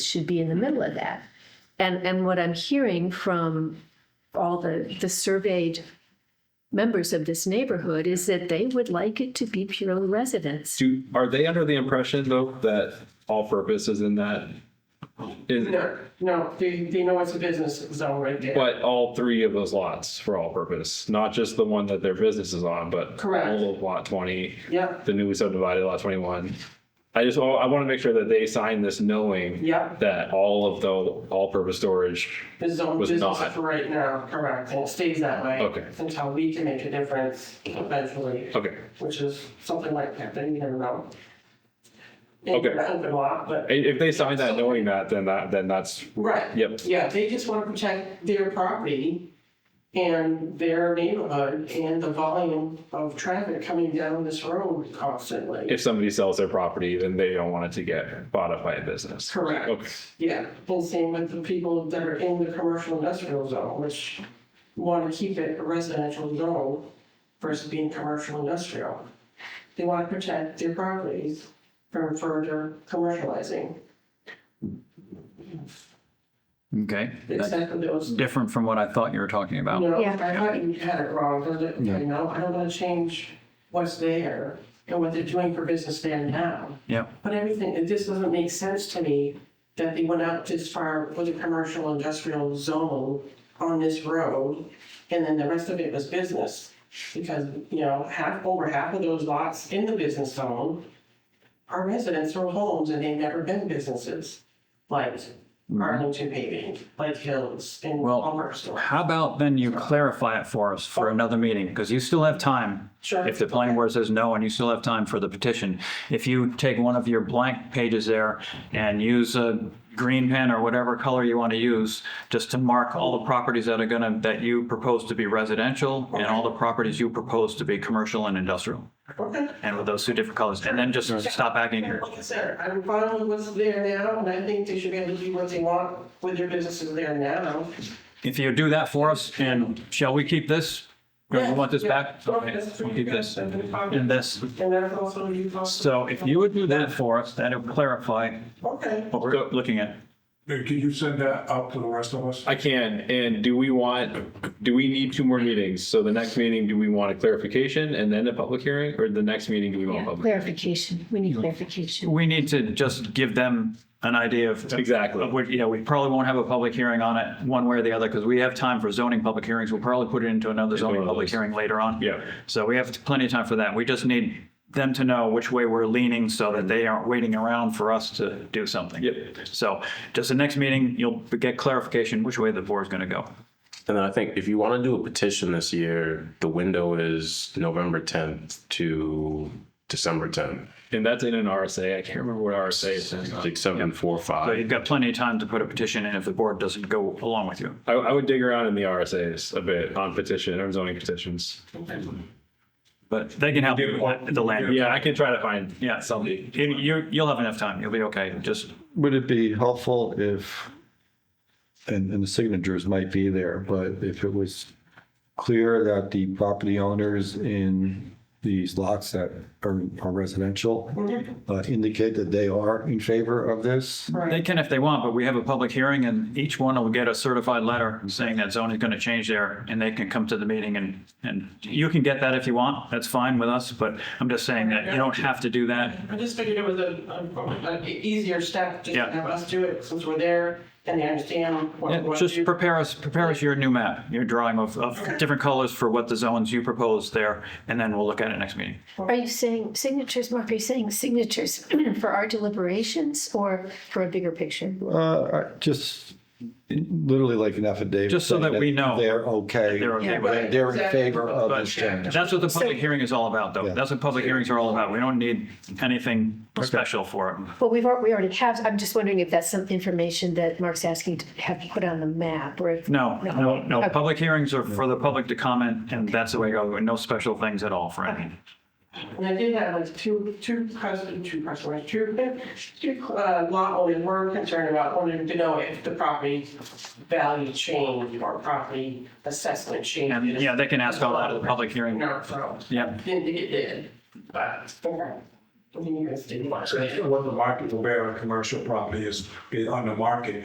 should be in the middle of that. And, and what I'm hearing from all the, the surveyed members of this neighborhood is that they would like it to be purely residence. Do, are they under the impression though that all purpose is in that? Is, No, no, they, they know it's a business zone right there. but all three of those lots for all purpose, not just the one that their business is on, but. Correct. all of lot twenty, Yep, the newly subdivided lot twenty-one. I just, wa- I want to make sure that they sign this knowing. Yep. That all of the all-purpose storage, the zone Was business not. for right now, correct, and it stays that way. Okay. Until we can make a difference eventually, okay. which is something like that, then you never know. Okay. An Open lot, but. I- If they sign that knowing that, then that, then that's, Right. Yep. Yeah, they just want to protect their property and their neighborhood and the volume of traffic coming down this road constantly. if somebody sells their property, then they don't want it to get bought up by a business. Correct. Okay. Yeah, and same with the people that are in the commercial industrial zone, which want to keep it a residential zone versus being commercial industrial. They want to protect their properties from further commercializing, Okay. That's except for those different from what I thought you were talking about. No, Yeah. I thought you had it wrong, because it, you know, I don't wanna change what's there and what they're doing for business there now. Yep. But everything, it just doesn't make sense to me that they went out this far with a commercial industrial zone on this road, and then the rest of it was business. Because, you know, half, over half of those lots in the business zone are residents or homes, and they've never been businesses. Like Arlington paving, like Hills and Mm-hmm. Well, Palmerston. How about then you clarify it for us for another meeting? Because you still have time. Sure. If the planning board says no, and you still have time for the petition. If you take one of your blank pages there and use a green pen or whatever color you want to use, just to mark all the properties that are gonna, that you propose to be residential and all the properties you propose to be commercial and industrial. Okay. And with those two different colors, and then just stop acting here. Like I said, I'm fine with what's there now, and I think they should be able to do what they want with their businesses there now. If you do that for us, and shall we keep this? Or you want this Yeah, back? yeah. Okay, we'll keep this and this. And that's also you also. So if you would do that for us, that'll clarify Okay, what we're looking at. Hey, Can you send that out to the rest of us? I can, and do we want, do we need two more meetings? So the next meeting, do we want a clarification and then a public hearing, or the next meeting, do we want a Yeah, public? clarification, we need clarification. We need to just give them an idea of. Exactly. Of what, you know, we probably won't have a public hearing on it one way or the other because we have time for zoning public hearings. We'll probably put it into another zoning one of public those. hearing later on. Yeah. So we have plenty of time for that. We just need them to know which way we're leaning so that they aren't waiting around for us to do something. Yep. So just the next meeting, you'll get clarification which way the board's going to go. And then I think if you want to do a petition this year, the window is November tenth to December tenth, And that's in an RSA. I can't remember what RSA is. like seven, four, So five. you've got plenty of time to put a petition in if the board doesn't go along with you. I, I would dig around in the RSAs a bit on petition or zoning petitions. But they can help you with the land. Yeah, I can try to find. Yeah, Somebody. You, you- you'll have enough time. You'll be okay. Just, Would it be helpful if, and, and the signatures might be there, but if it was clear that the property owners in these lots that are are residential uh, indicate that they are in favor of this? they can if they want, but we have a public hearing and each one will get a certified letter saying that zone is going to change there and they can come to the meeting and, and you can get that if you want. That's fine with us, but I'm just saying that you don't have to do that. I just figured it was a, a- an easier step just to Yeah. have us do it since we're there and they understand what. Yeah, what Just you- prepare us, prepare us your new map, your drawing of, of different colors for what the zones you propose there, and then we'll look at it next meeting. Are you saying signatures, Mark, are you saying signatures for our deliberations or for a bigger picture? Uh, I- just literally like an affidavit. Just so saying that we know They're okay. They're okay with it. that They're in Exactly. favor of But this change. that's what the public hearing is all about, though. Yeah. That's what public hearings are all about. We don't need anything special for it. Well, we've, al- we already have, I'm just wondering if that's some information that Mark's asking to have put on the map or if. No, no, no. Okay. Public hearings are for the public to comment, and that's the way, it goes. no special things at all for anything. And I did have like two, two customers, two customers, two, two uh, lot owners were concerned about wanting to know if the property value changed or property assessment changed. And, yeah, they can ask all that at the public hearing. No, so. Yep. Didn't think it did, but. You guys didn't watch it. What the market will bear on commercial property is, is on the market,